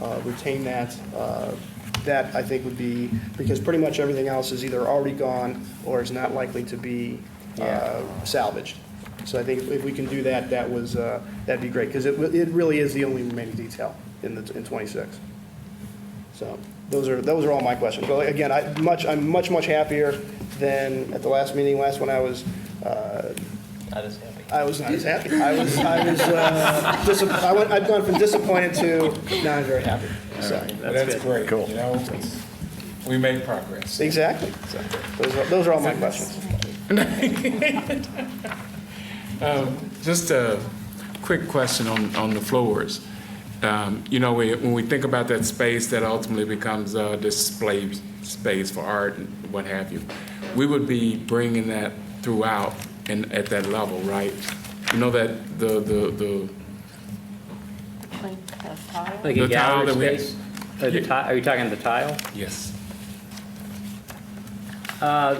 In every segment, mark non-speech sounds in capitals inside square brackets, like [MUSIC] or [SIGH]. uh, retain that. Uh, That, I think, would be, because pretty much everything else is either already gone or is not likely to be uh, salvaged. So I think if- if we can do that, that was, uh, that'd be great, because it it really is the only remaining detail in the, in 26. So those are, those are all my questions. But again, I, much, I'm much, much happier than at the last meeting, last one, I was, uh, Not as happy. I was not as happy. I was, I was, uh, dis- [LAUGHS] I went, I've gone from disappointed to now I'm very happy. So, That's great. Cool. You know, it's- we made progress. exactly. So Those are, those are all my questions. Just a quick question on, on the floors. Um, You know, we- when we think about that space that ultimately becomes a display space for art and what have you, we would be bringing that throughout and at that level, right? You know that the, the, the Like a tile? Like a The tile gallery that we- space? Or the ti- Are you talking the tile? yes. Uh,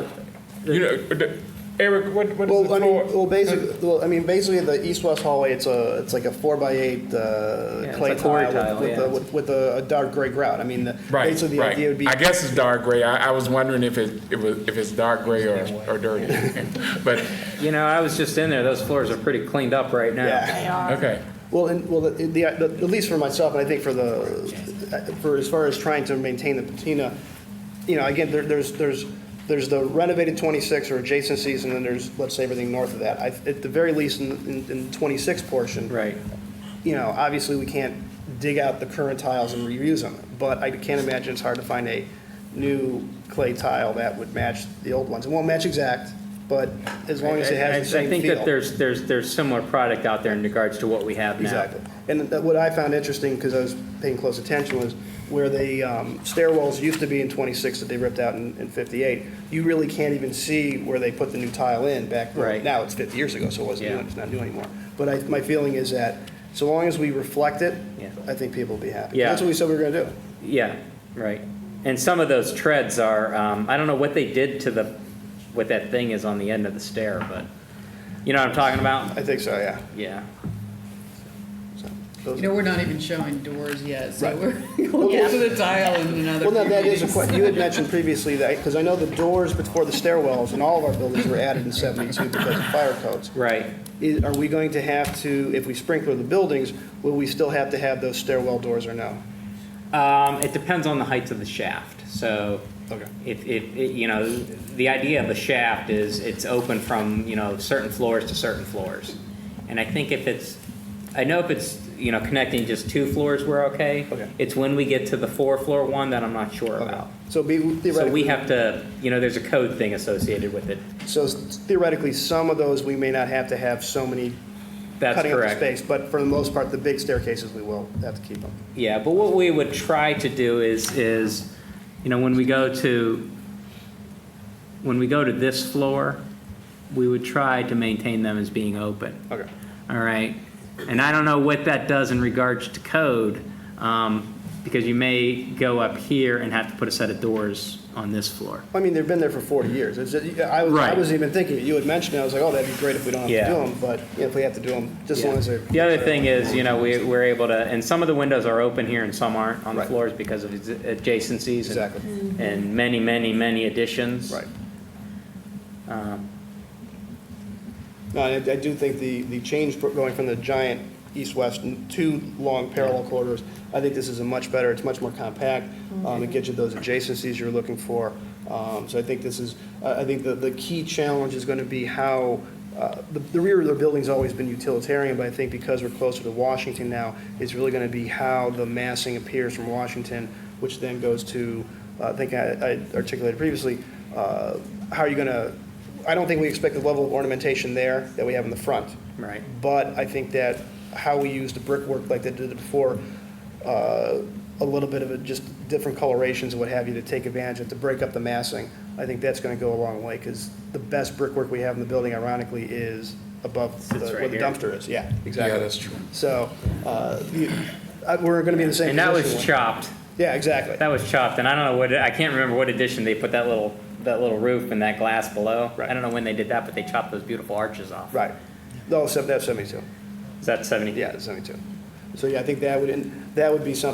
You know, the- Eric, what, what is Well, the I mean, floor? well, basically, well, I mean, basically the east-west hallway, it's a, it's like a four by eight, uh, it's clay a quarry tile tile, with- with, yeah. a- with, with a a dark gray grout. I mean, the- Right, basically the right. idea would be. I guess it's dark gray. I, I was wondering if it, it was, if it's dark gray or, or dirty. But, You know, I was just in there, those floors are pretty cleaned up right now. Yeah. They are. okay, Well, and, well, the, the, at least for myself, and I think for the, for as far as trying to maintain the patina, you know, again, there, there's, there's, there's the renovated 26 or adjacencies, and then there's, let's say, everything north of that. I, at the very least, in, in, in 26 portion. Right. You know, obviously, we can't dig out the current tiles and reuse them, but I can't imagine it's hard to find a new clay tile that would match the old ones. It won't match exact, but as long as it I- I- has the same feel. I think that there's, there's, there's similar product out there in regards to what we have now. Exactly. And that- what I found interesting, because I was paying close attention, was where the um, stairwells used to be in 26 that they ripped out in in 58, you really can't even see where they put the new tile in back Right. then. Now, it's 50 years ago, so it wasn't new, Yeah. and it's not new anymore. But I, my feeling is that so long as we reflect it, Yeah. I think people will be happy. Yeah. That's what we said we were going to do. Yeah, right. And some of those treads are, um, I don't know what they did to the, what that thing is on the end of the stair, but, you know what I'm talking about? I think so, yeah. Yeah. So, those- You know, we're not even showing doors yet, so Right. we're [LAUGHS] going to the tile in another. Well, now, few that is a meetings. question. You had mentioned previously that, because I know the doors before the stairwells in all of our buildings were added in 72 because of fire codes. Right. is, are we going to have to, if we sprinkler the buildings, will we still have to have those stairwell doors or no? Um, it depends on the heights of the shaft, so. Okay. If, if, it- you know, the idea of a shaft is it's open from, you know, certain floors to certain floors. And I think if it's, I know if it's, you know, connecting just two floors, we're okay. Okay. It's when we get to the four floor one that I'm not sure about. So be So we theoretically, have to, you know, there's a code thing associated with it. so theoretically, some of those, we may not have to have so many That's cutting up the correct. space, but for the most part, the big staircases, we will have to keep them. Yeah, but what we would try to do is, is, you know, when we go to, when we go to this floor, we would try to maintain them as being open. Okay. All right. And I don't know what that does in regards to code, um, because you may go up here and have to put a set of doors on this floor. I mean, they've been there for 40 years. It's, I was, I Right. was even thinking, you had mentioned, it, I was like, oh, that'd be great if we don't have to Yeah. do them, but if we have to do them, just as long as they're. The other thing is, you know, we, we're able to, and some of the windows are open here and some aren't on the Right. floors because of adj- adjacencies. and- Exactly. And many, many, many additions. Right. Um, No, I, I do think the, the change for going from the giant east-west, and two long parallel corridors, I think this is a much better, it's much more compact. Um, it gets you those adjacencies you're looking for. Um, so I think this is, I, I think the, the key challenge is gonna be how, uh, the, the rear of the building's always been utilitarian, but I think because we're closer to Washington now, it's really gonna be how the massing appears from Washington, which then goes to, uh, I think I, I articulated previously, uh, how are you gonna I don't think we expect the level of ornamentation there that we have in the front. Right. But I think that how we use the brickwork like they did before, uh, a little bit of it, just different colorations and what have you to take advantage of, to break up the massing, I think that's going to go a long way because the best brickwork we have in the building ironically is above the- Sits right where the here. dumpster is. Yeah, yeah, exactly. that's true. So uh, you- I- we're going to be in the same And that was position. chopped, Yeah, exactly. that was chopped, and I don't know what, I can't remember what addition they put that little, that little roof and that glass below. I don't know when they did that, but they chopped those beautiful arches off. Right. No, except that's 72. Is that seventy? Yeah, 72. So yeah, I think that would, that would be something